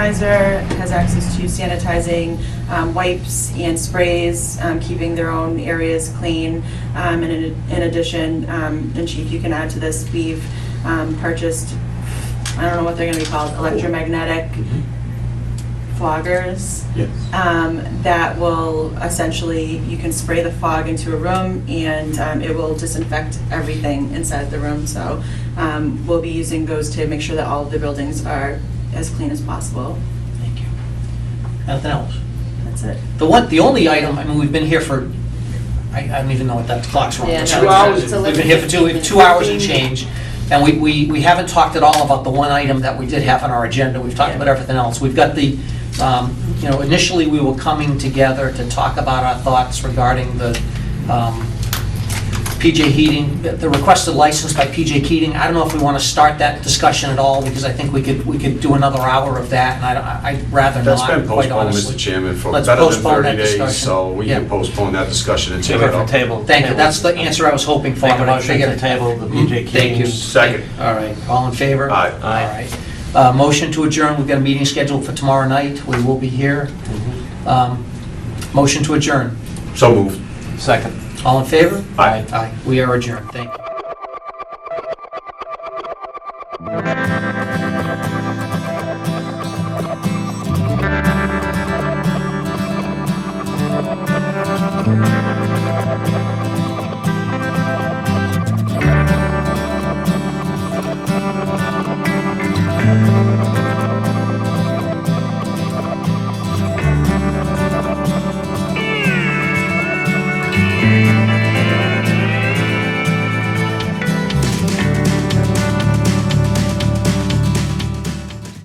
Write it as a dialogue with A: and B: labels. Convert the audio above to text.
A: Sanitizer has access to sanitizing um, wipes and sprays, um, keeping their own areas clean. Um, And in in addition, um, and Chief, you can add to this, we've um, purchased, I don't know what they're going to be called, electromagnetic foggers
B: Yes.
C: Uh,
A: um, that will essentially, you can spray the fog into a room and um, it will disinfect everything inside the room. So um, we'll be using those to make sure that all of the buildings are as clean as possible.
C: Thank you. Nothing else?
A: That's it.
C: The one, the only item, I mean, we've been here for, I, I don't even know what that clock's wrong.
D: Yeah,
C: Two
D: no, it's-
C: hours.
D: it's a
C: We've
D: little-
C: been here for two, two hours and change, and we, we, we haven't talked at all about the one item that we did have on our agenda. We've talked about everything else. We've got the, um, you know, initially, we were coming together to talk about our thoughts regarding the, um, PJ Heating, the requested license by PJ Keating. I don't know if we want to start that discussion at all, because I think we could, we could do another hour of that, and I, don't- I- I'd rather not,
B: That's been
C: quite
B: postponed,
C: honestly.
B: Mr. Chairman, for
C: Let's
B: better than
C: postpone that
B: 30 days,
C: discussion.
B: so we can
C: Yeah.
B: postpone that discussion until.
E: Take it from table.
C: Thank you, that's the answer I was hoping for.
E: Make a
C: but I
E: motion to
C: figured-
E: table the BJ
C: Mm-hmm. Thank you.
E: Keating's.
B: Second.
C: All right, all in favor?
B: Aye.
E: Aye.
C: All right. Uh, Motion to adjourn, we've got a meeting scheduled for tomorrow night, we will be here. Um, Motion to adjourn,
B: So moved.
E: Second.
C: all in favor?
B: Aye.
C: Aye, we are adjourned, thank you.